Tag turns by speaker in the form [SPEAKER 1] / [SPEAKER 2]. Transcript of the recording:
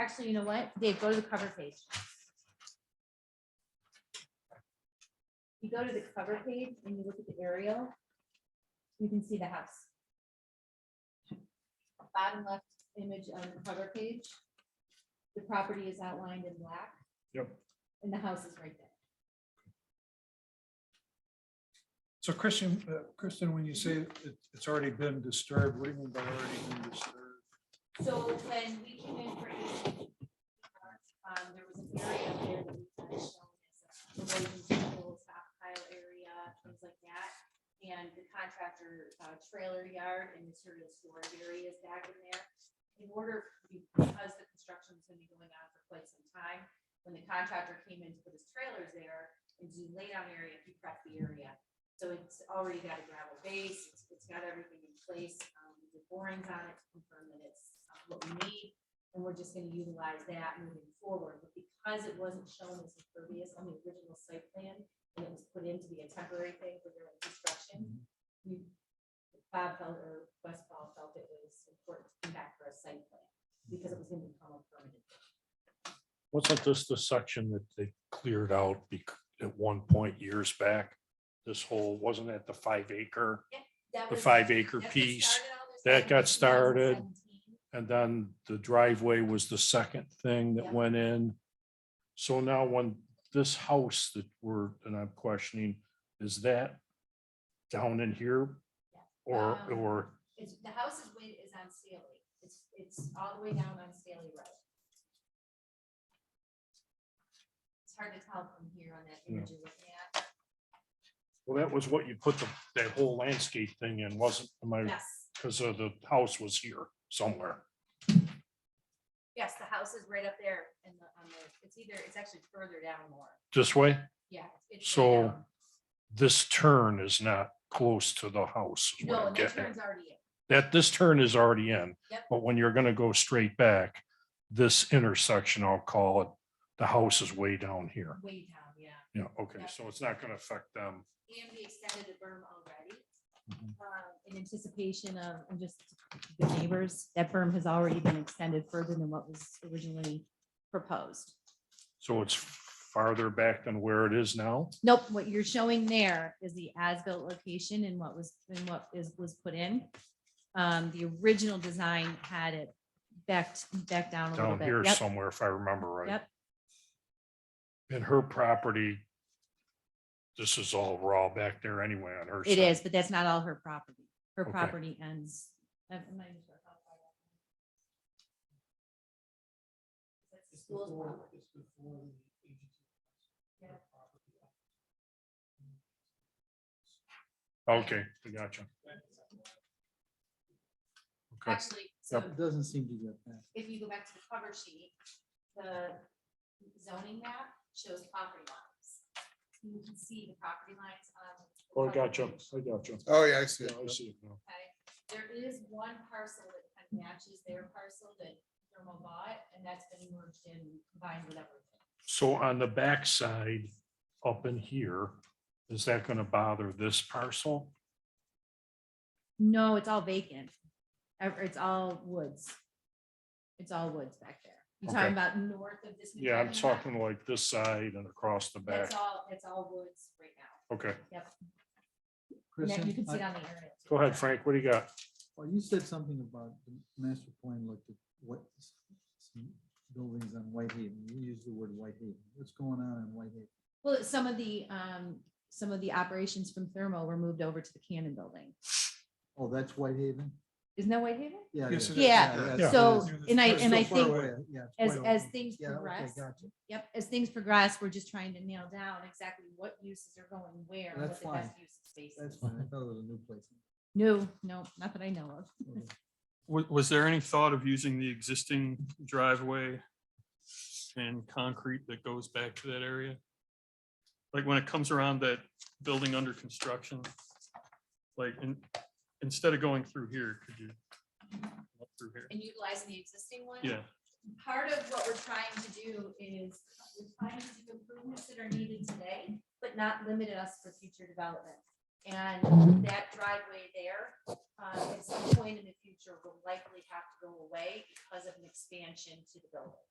[SPEAKER 1] Actually, you know what? Dave, go to the cover page. You go to the cover page and you look at the aerial, you can see the house. Bottom left image on the cover page. The property is outlined in black.
[SPEAKER 2] Yep.
[SPEAKER 1] And the house is right there.
[SPEAKER 2] So Christian, uh, Kristen, when you say it, it's already been disturbed, what do you mean by already been disturbed?
[SPEAKER 1] So when we came in for AC, um, there was an area up there that we kind of shown as a erosion control stockpile area, things like that. And the contractor, uh, trailer yard and material storage area is back in there. In order, because the construction is gonna be going on for quite some time, when the contractor came in to put his trailers there and do laydown area, he prepped the area. So it's already got a gravel base, it's- it's got everything in place, um, we did borings on it to confirm that it's uh, what we need. And we're just gonna utilize that moving forward, but because it wasn't shown as impervious on the original site plan, and it was put in to be a temporary thing for their construction, we, Bob felt, or West Paul felt it was important to come back for a site plan, because it was gonna become a permanent.
[SPEAKER 3] Wasn't this the section that they cleared out bec- at one point years back? This whole, wasn't that the five acre,
[SPEAKER 1] That
[SPEAKER 3] the
[SPEAKER 1] was-
[SPEAKER 3] five acre
[SPEAKER 1] that's what
[SPEAKER 3] piece?
[SPEAKER 1] started all this
[SPEAKER 3] that
[SPEAKER 1] in
[SPEAKER 3] got started.
[SPEAKER 1] 2017.
[SPEAKER 3] And then the driveway was the second thing
[SPEAKER 1] Yeah.
[SPEAKER 3] that went in. So now when this house that we're, and I'm questioning, is that down in here? Or,
[SPEAKER 1] Um,
[SPEAKER 3] or,
[SPEAKER 1] It's, the house is way, is on Staley. It's, it's all the way down on Staley Road. It's hard to tell from here on that image you're looking at.
[SPEAKER 3] well, that was what you put the, that whole landscape thing in, wasn't, am I,
[SPEAKER 1] Yes,
[SPEAKER 3] because of the house was here somewhere.
[SPEAKER 1] yes, the house is right up there and the, on the, it's either, it's actually further down more.
[SPEAKER 3] This way?
[SPEAKER 1] Yeah. it's- it's way
[SPEAKER 3] So-
[SPEAKER 1] down.
[SPEAKER 3] this turn is not close to the house. is what
[SPEAKER 1] No,
[SPEAKER 3] I'm
[SPEAKER 1] and that
[SPEAKER 3] getting at.
[SPEAKER 1] turn's already in.
[SPEAKER 3] That, this turn is already in.
[SPEAKER 1] Yep.
[SPEAKER 3] But when you're gonna go straight back, this intersection, I'll call it, the house is way down here.
[SPEAKER 1] Way down, yeah.
[SPEAKER 3] Yeah, okay,
[SPEAKER 1] Yep.
[SPEAKER 3] so it's not gonna affect them.
[SPEAKER 1] And we extended the berm already.
[SPEAKER 3] Mhm.
[SPEAKER 1] um, in anticipation of, and just the neighbors, that berm has already been extended further than what was originally proposed.
[SPEAKER 3] So it's farther back than where it is now.
[SPEAKER 1] Nope, what you're showing there is the as-built location and what was, and what is, was put in. Um, the original design had it backed, back down a little
[SPEAKER 3] down here
[SPEAKER 1] bit. Yep,
[SPEAKER 3] somewhere, if I remember right.
[SPEAKER 1] Yep.
[SPEAKER 3] And her property, this is all raw back there anyway on her.
[SPEAKER 1] it
[SPEAKER 3] side.
[SPEAKER 1] is, but that's not all her property. Her
[SPEAKER 3] Okay.
[SPEAKER 1] property ends. uh, I'm not even sure how far that- That's the school's property. Yeah.
[SPEAKER 3] Okay, I gotcha. Okay,
[SPEAKER 1] Actually, so
[SPEAKER 4] It doesn't seem to get that.
[SPEAKER 1] if you go back to the cover sheet, the zoning map shows property lines. You can see the property lines on. the
[SPEAKER 3] oh, I
[SPEAKER 1] cover
[SPEAKER 3] gotcha,
[SPEAKER 1] page,
[SPEAKER 3] I gotcha.
[SPEAKER 5] Oh, yeah, I see.
[SPEAKER 3] Yeah,
[SPEAKER 5] it.
[SPEAKER 3] I see it now.
[SPEAKER 1] Okay, there is one parcel that kind of matches their parcel that Thermo bought, and that's been merged in, combined with everything.
[SPEAKER 3] So on the backside, up in here, is that gonna bother this parcel?
[SPEAKER 1] No, it's all vacant. Ev- It's all woods. It's all woods back there. You're talking
[SPEAKER 3] Okay.
[SPEAKER 1] about north of this. new
[SPEAKER 3] Yeah, I'm
[SPEAKER 1] parking lot?
[SPEAKER 3] talking like this side and across the back.
[SPEAKER 1] That's all, it's all woods right now.
[SPEAKER 3] Okay,
[SPEAKER 1] And that you
[SPEAKER 4] Kristen,
[SPEAKER 1] can see it on
[SPEAKER 4] I-
[SPEAKER 1] the aerial.
[SPEAKER 3] go ahead, Frank, what do you got?
[SPEAKER 4] well, you said something about the master plan looked at what s- some buildings on Whitehaven. You used the word Whitehaven. What's going on in Whitehaven?
[SPEAKER 1] Well, some of the, um, some of the operations from Thermo were moved over to the Cannon Building.
[SPEAKER 4] Oh, that's Whitehaven?
[SPEAKER 1] Isn't that Whitehaven?
[SPEAKER 4] Yeah. it
[SPEAKER 2] Yes,
[SPEAKER 4] is.
[SPEAKER 2] it
[SPEAKER 1] is. Yeah,
[SPEAKER 4] that's-
[SPEAKER 3] Yeah.
[SPEAKER 1] So,
[SPEAKER 4] that's-
[SPEAKER 1] and I,
[SPEAKER 4] that's
[SPEAKER 1] and
[SPEAKER 4] so
[SPEAKER 1] I
[SPEAKER 4] far
[SPEAKER 1] think
[SPEAKER 4] away. Yeah, it's
[SPEAKER 1] as,
[SPEAKER 4] quite
[SPEAKER 1] as
[SPEAKER 4] away.
[SPEAKER 1] things
[SPEAKER 4] Yeah, okay,
[SPEAKER 1] progress,
[SPEAKER 4] gotcha.
[SPEAKER 1] yep, as things progress, we're just trying to nail down exactly what uses are going where, and what
[SPEAKER 4] That's
[SPEAKER 1] the best
[SPEAKER 4] fine.
[SPEAKER 1] use of space
[SPEAKER 4] That's
[SPEAKER 1] is.
[SPEAKER 4] fine. I thought it was a new place.
[SPEAKER 1] No, no, not that I know of.
[SPEAKER 4] Okay.
[SPEAKER 6] Was, was there any thought of using the existing driveway and concrete that goes back to that area? Like when it comes around that building under construction? Like, in instead of going through here, could you? up Through here,
[SPEAKER 1] And utilizing the existing one?
[SPEAKER 6] yeah,
[SPEAKER 1] part of what we're trying to do is, we're trying to do improvements that are needed today, but not limit us for future development. And that driveway there, um, uh, at some point in the future, will likely have to go away because of an expansion to the building.